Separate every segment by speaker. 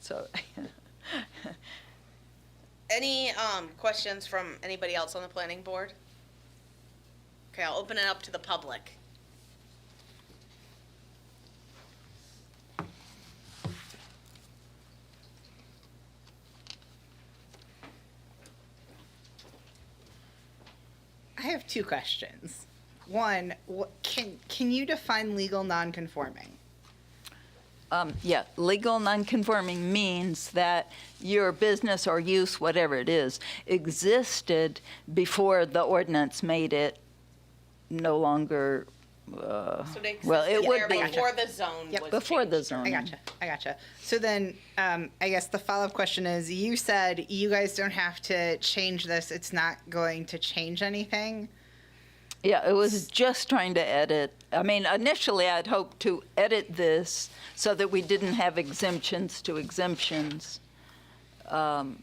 Speaker 1: so.
Speaker 2: Any um, questions from anybody else on the planning board? Okay, I'll open it up to the public.
Speaker 3: I have two questions. One, what, can can you define legal nonconforming?
Speaker 1: Um, Yeah, legal nonconforming means that your business or use, whatever it is, existed before the ordinance made it no longer, uh,
Speaker 2: So they
Speaker 1: well, it
Speaker 2: existed
Speaker 1: would
Speaker 2: there
Speaker 1: be.
Speaker 2: Before the zone
Speaker 3: Yep.
Speaker 2: was
Speaker 1: Before the
Speaker 2: changed, or-
Speaker 1: zone.
Speaker 3: I gotcha. I gotcha. So then, um, I guess the follow up question is: You said you guys don't have to change this; it's not going to change anything.
Speaker 1: Yeah, it was just trying to edit. I mean, initially, I'd hoped to edit this so that we didn't have exemptions to exemptions um,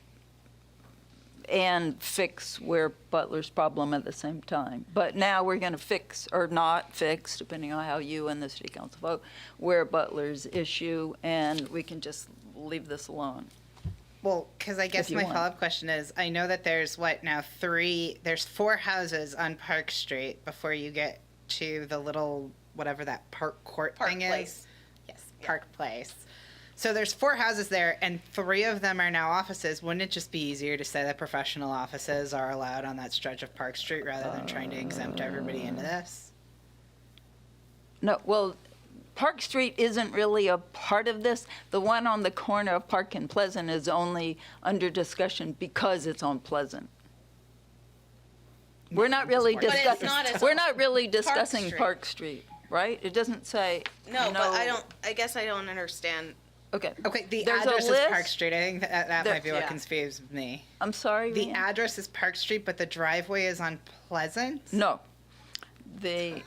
Speaker 1: and fix where Butler's problem at the same time. But now we're going to fix, or not fix, depending on how you and the city council vote, where Butler's issue, and we can just leave this alone.
Speaker 3: Well, because I guess
Speaker 1: you
Speaker 3: my
Speaker 1: want.
Speaker 3: follow up question is: I know that there's what now three, there's four houses on Park Street before you get to the little whatever that park court
Speaker 2: Park
Speaker 3: thing
Speaker 2: Place.
Speaker 3: is. Yes, Park Place. So there's four houses there, and three of them are now offices. Wouldn't it just be easier to say that professional offices are allowed on that stretch of Park Street rather than trying to exempt everybody into this?
Speaker 1: No, well, Park Street isn't really a part of this. The one on the corner of Park and Pleasant is only under discussion because it's on Pleasant. We're not really
Speaker 3: But it's
Speaker 1: discussing,
Speaker 2: not as-
Speaker 1: we're not really discussing
Speaker 2: Street.
Speaker 1: Park Street, right? It doesn't say.
Speaker 2: No, but I don't, I guess I don't understand.
Speaker 1: Okay,
Speaker 3: Okay, the
Speaker 1: There's a
Speaker 3: address is
Speaker 1: list.
Speaker 3: Park Street. I think that, that
Speaker 1: There- Mm-hmm.
Speaker 3: might be what
Speaker 2: yeah.
Speaker 3: confused me.
Speaker 1: I'm sorry,
Speaker 3: The
Speaker 1: Rhian?
Speaker 3: address is Park Street, but the driveway is on Pleasant.
Speaker 1: No. The,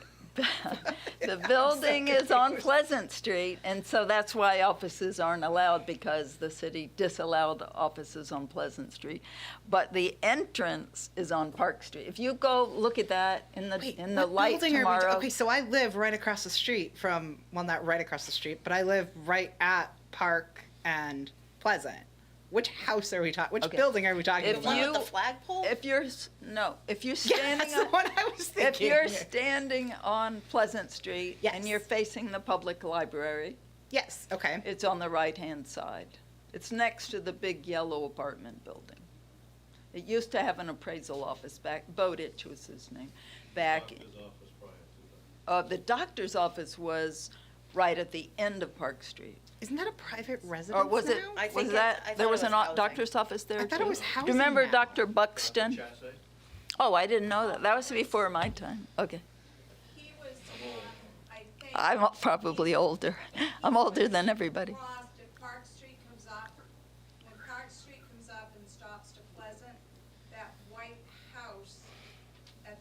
Speaker 1: the building is on Pleasant Street, and so that's why offices aren't allowed, because the city disallowed offices on Pleasant Street. But the entrance is on Park Street. If you go look at that in
Speaker 3: Wait,
Speaker 1: the, in the
Speaker 3: what
Speaker 1: light
Speaker 3: building are we-
Speaker 1: tomorrow.
Speaker 3: okay, so I live right across the street from, well, not right across the street, but I live right at Park and Pleasant. Which house are we talking? Which
Speaker 1: Okay.
Speaker 3: building are we talking
Speaker 1: If
Speaker 2: The one
Speaker 3: about?
Speaker 2: with
Speaker 1: you-
Speaker 2: the flagpole?
Speaker 1: If you're, s- no, if you're
Speaker 3: yeah,
Speaker 1: standing
Speaker 3: that's the
Speaker 1: on,
Speaker 3: one I was thinking.
Speaker 1: if you're standing on Pleasant Street and
Speaker 3: Yes.
Speaker 1: you're facing the public library,
Speaker 3: yes, okay.
Speaker 1: it's on the right-hand side. It's next to the big yellow apartment building. It used to have an appraisal office back, Bowditch was his name, back, uh, the doctor's office was right at the end of Park Street.
Speaker 3: Isn't that a private residence
Speaker 1: Or was it,
Speaker 3: now?
Speaker 2: I
Speaker 1: was
Speaker 2: think it- I
Speaker 1: that,
Speaker 2: thought
Speaker 1: there
Speaker 2: it
Speaker 1: was
Speaker 2: was
Speaker 1: an o-
Speaker 2: housing.
Speaker 1: doctor's office there
Speaker 3: I
Speaker 1: too?
Speaker 3: thought it was
Speaker 1: Do you
Speaker 3: housing
Speaker 1: remember
Speaker 3: now.
Speaker 1: Dr. Buxton? Oh, I didn't know that, that was before my time, okay.
Speaker 4: He was the one, I think.
Speaker 1: I'm probably older, I'm older than everybody.
Speaker 4: Crossed if Park Street comes up, when Park Street comes up and stops to Pleasant, that white house, at,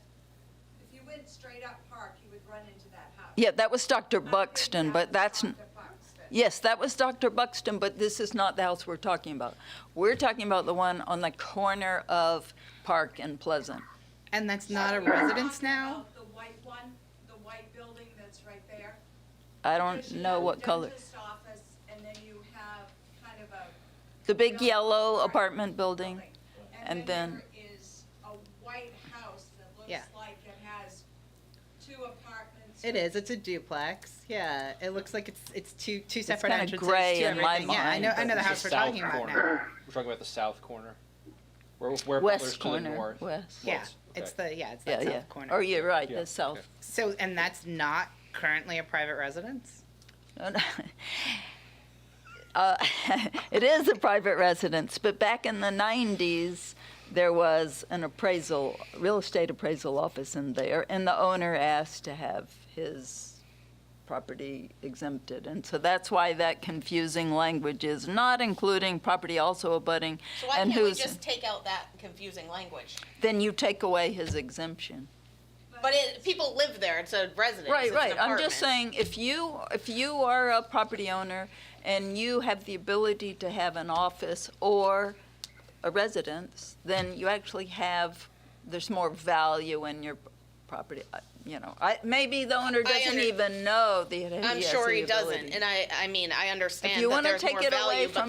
Speaker 4: if you went straight up Park, you would run into that house.
Speaker 1: Yeah, that was Dr.
Speaker 4: I think
Speaker 1: Buxton, but that's, n-
Speaker 4: Dr. Buxton.
Speaker 1: Yes, that was Dr. Buxton, but this is not the house we're talking about. We're talking about the one on the corner of Park and Pleasant.
Speaker 3: And that's not a
Speaker 4: You're talking
Speaker 3: residence now?
Speaker 4: about The white one, the white building that's right there.
Speaker 1: I
Speaker 4: There's,
Speaker 1: don't
Speaker 4: you
Speaker 1: know
Speaker 4: the
Speaker 1: what color.
Speaker 4: Dentist office, and then you have kind of a
Speaker 1: The big
Speaker 4: No.
Speaker 1: yellow apartment building.
Speaker 4: building.
Speaker 1: And then-
Speaker 4: there is a white house that
Speaker 3: Yeah.
Speaker 4: looks like it has two apartments.
Speaker 3: It is. It's a duplex. Yeah, it looks like it's it's two two separate
Speaker 1: kinda
Speaker 3: entrances.
Speaker 1: gray
Speaker 3: to
Speaker 1: in my
Speaker 3: everything. Yeah, I
Speaker 1: mind,
Speaker 3: know. I
Speaker 1: but
Speaker 3: know the
Speaker 1: it's
Speaker 3: house
Speaker 5: the
Speaker 3: we're
Speaker 5: south
Speaker 3: talking about
Speaker 5: corner.
Speaker 3: now.
Speaker 5: We're talking about the south corner. Where, where Butler's
Speaker 1: West
Speaker 5: to the
Speaker 1: corner,
Speaker 5: north.
Speaker 1: west.
Speaker 3: Yeah,
Speaker 5: Yes,
Speaker 3: it's
Speaker 5: okay.
Speaker 3: the yeah, it's that
Speaker 1: Yeah,
Speaker 3: south
Speaker 1: yeah.
Speaker 3: corner.
Speaker 1: Oh, you're right,
Speaker 5: Yeah,
Speaker 1: the south.
Speaker 5: okay.
Speaker 3: So, and that's not currently a private residence?
Speaker 1: No, no. Uh, It is a private residence, but back in the 90s, there was an appraisal, real estate appraisal office in there, and the owner asked to have his property exempted. And so that's why that confusing language is not including property also abutting
Speaker 2: So why
Speaker 1: and
Speaker 2: can't we
Speaker 1: who's.
Speaker 2: just take out that confusing language?
Speaker 1: Then you take away his exemption.
Speaker 2: But it, people live there, it's a residence,
Speaker 1: Right,
Speaker 2: it's an
Speaker 1: right. I'm just
Speaker 2: apartment.
Speaker 1: saying, if you, if you are a property owner and you have the ability to have an office or a residence, then you actually have, there's more value in your property, I- you know. I, maybe the owner
Speaker 2: I
Speaker 1: doesn't
Speaker 2: under-
Speaker 1: even know that he has the
Speaker 2: I'm sure he
Speaker 1: ability.
Speaker 2: doesn't, and I, I mean, I understand
Speaker 1: you
Speaker 2: that
Speaker 1: wanna
Speaker 2: there's
Speaker 1: take
Speaker 2: more
Speaker 1: it away
Speaker 2: value, but
Speaker 1: from